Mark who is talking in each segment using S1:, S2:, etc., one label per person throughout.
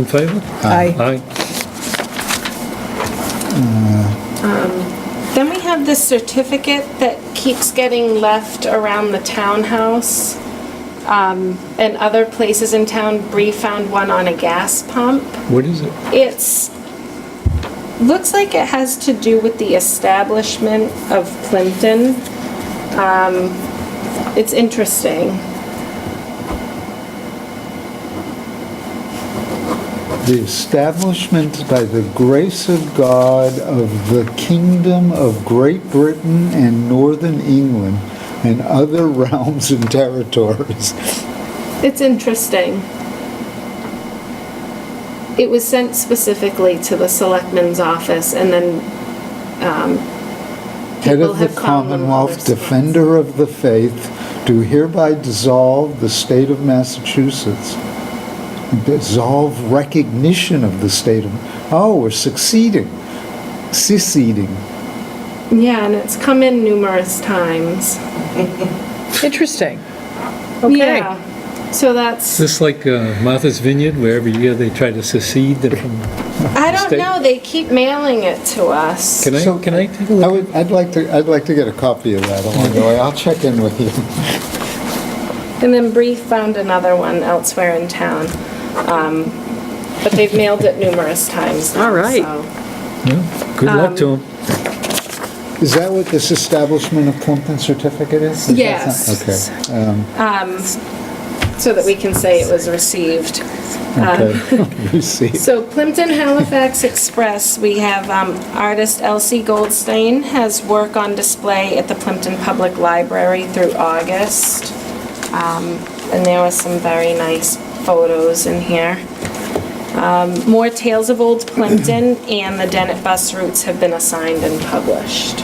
S1: In favor?
S2: Aye.
S1: Aye.
S3: Then we have this certificate that keeps getting left around the townhouse. Um, And other places in town, Bree found one on a gas pump.
S1: What is it?
S3: It's, looks like it has to do with the establishment of Plimpton. Um, It's interesting.
S2: The establishment by the grace of God of the kingdom of Great Britain and Northern England and other realms and territories.
S3: It's interesting. It was sent specifically to the selectman's office and then
S2: Head
S3: People
S2: of the
S3: have found them all
S2: Commonwealth,
S3: their spots.
S2: defender of the faith, do hereby dissolve the state of Massachusetts. Dissolve recognition of the state of, oh, we're succeeding, seceding.
S3: Yeah, and it's come in numerous times.
S4: Interesting. Okay.
S3: Yeah. So
S1: Is
S3: that's,
S1: this like uh, Martha's Vineyard, where every year they try to secede them from?
S3: I don't
S1: State-
S3: know, they keep mailing it to us.
S1: Can
S2: So-
S1: I, can I take a
S2: I
S1: look?
S2: would, I'd like to, I'd like to get a copy of that along the way. I'll check in with you.
S3: And then Bree found another one elsewhere in town. Um, But they've mailed it numerous times. now,
S4: All right.
S3: so-
S1: Yeah. Good luck
S2: um,
S1: to them.
S2: Is that what this establishment of Plimpton certificate is? Is that
S3: Yes.
S2: some- Okay, um,
S3: So that we can say it was received.
S2: okay.
S4: Um,
S2: You see.
S3: So Plimpton Halifax Express, we have um, artist Elsie Goldstein has work on display at the Plimpton Public Library through August. Um, And there were some very nice photos in here. Um, More tales of old Plimpton and the Dennett bus routes have been assigned and published.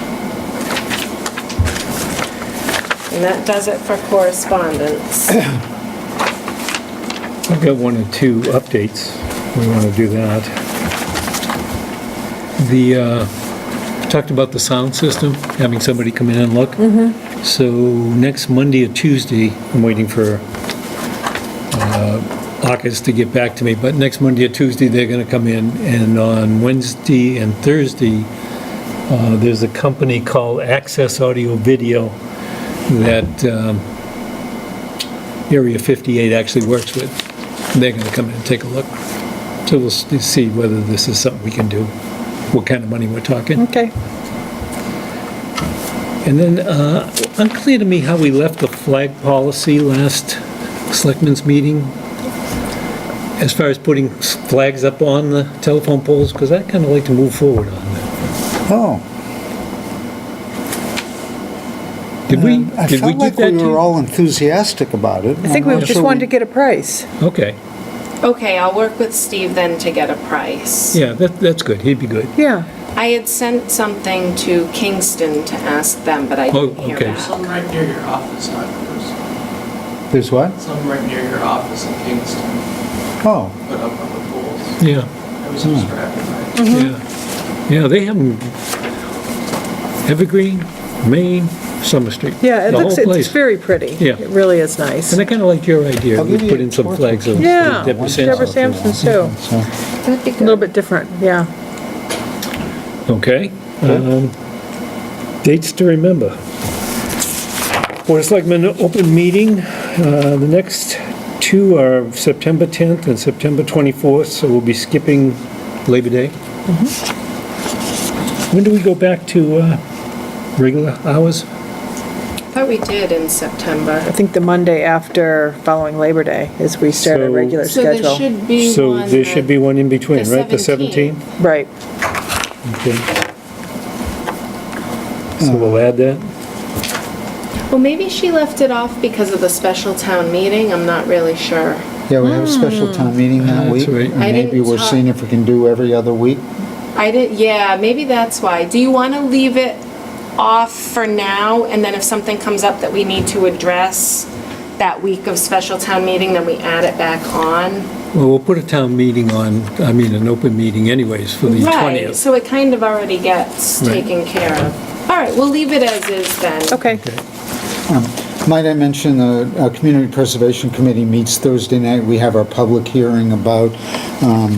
S3: And that does it for correspondence.
S1: I've got one or two updates. We want to do that. The, uh, talked about the sound system, having somebody come in and look. So next Monday or Tuesday, I'm waiting for Akas to get back to me, but next Monday or Tuesday, they're going to come in, and on Wednesday and Thursday, uh, there's a company called Access Audio Video that um, Area 58 actually works with. They're going to come in and take a look. So we'll s- see whether this is something we can do, what kind of money we're talking.
S4: Okay.
S1: And then, uh, unclear to me how we left the flag policy last selectmen's meeting, as far as putting s- flags up on the telephone poles, because I'd kind of like to move forward on that.
S2: Oh,
S1: Did we,
S2: Um, I
S1: did we
S2: felt
S1: do that
S2: like we were
S1: too?
S2: all enthusiastic about it. Uh,
S4: I think we just wanted to get a price.
S1: Okay,
S3: Okay, I'll work with Steve then to get a price.
S1: yeah, that, that's good, he'd be good.
S4: Yeah.
S3: I had sent something to Kingston to ask them, but I
S1: Oh,
S3: didn't hear
S1: okay.
S5: There's
S3: back.
S5: some right near your office, I suppose.
S2: There's what?
S5: Some right near your office in Kingston,
S2: Oh,
S5: put up on the poles.
S1: Yeah,
S5: I was distracted by it.
S1: yeah,
S2: Mm-hmm.
S1: yeah, they have 'em Evergreen, Maine, Summer Street.
S4: Yeah, it
S1: the
S4: looks,
S1: whole
S4: it's
S1: place.
S4: very pretty.
S1: Yeah.
S4: It really is nice.
S1: And I kind of liked your idea,
S2: I'll
S1: we
S2: give
S1: put
S2: you
S1: in some
S2: four
S1: flags of
S2: photos.
S4: Yeah,
S1: Deborah
S4: Deborah
S1: Sampson.
S4: Sampson's too.
S2: so,
S3: That'd be
S4: A little bit different, yeah.
S1: Okay. um, Dates to remember. Board of Selectmen open meeting. uh, The next two are September 10th and September 24th, so we'll be skipping Labor Day.
S3: Mm-hmm.
S1: When do we go back to uh, regular hours?
S3: Thought we did in September.
S4: I think the Monday after following Labor Day is we start our
S1: So-
S4: regular
S3: So there
S4: schedule.
S3: should be
S1: So
S3: one
S1: there should be
S3: that-
S1: one in between,
S3: the
S1: right? The
S3: 17th.
S1: 17th?
S4: Right.
S1: Okay. So we'll add that?
S3: Well, maybe she left it off because of the special town meeting, I'm not really sure.
S2: yeah, we have a
S4: Hmm.
S2: special town meeting that
S1: That's
S2: week.
S1: right.
S2: and
S3: I didn't
S2: Maybe we're
S3: talk-
S2: seeing if we can do every other week.
S3: I didn't, yeah, maybe that's why. Do you want to leave it off for now, and then if something comes up that we need to address that week of special town meeting, then we add it back on?
S1: Well, we'll put a town meeting on, I mean, an open meeting anyways for the 20th.
S3: Right, so it kind of already gets
S1: Right.
S3: taken care of. All right, we'll leave it as is then.
S4: Okay.
S2: Might I mention, the uh, Community Preservation Committee meets Thursday night. We have our public hearing about um,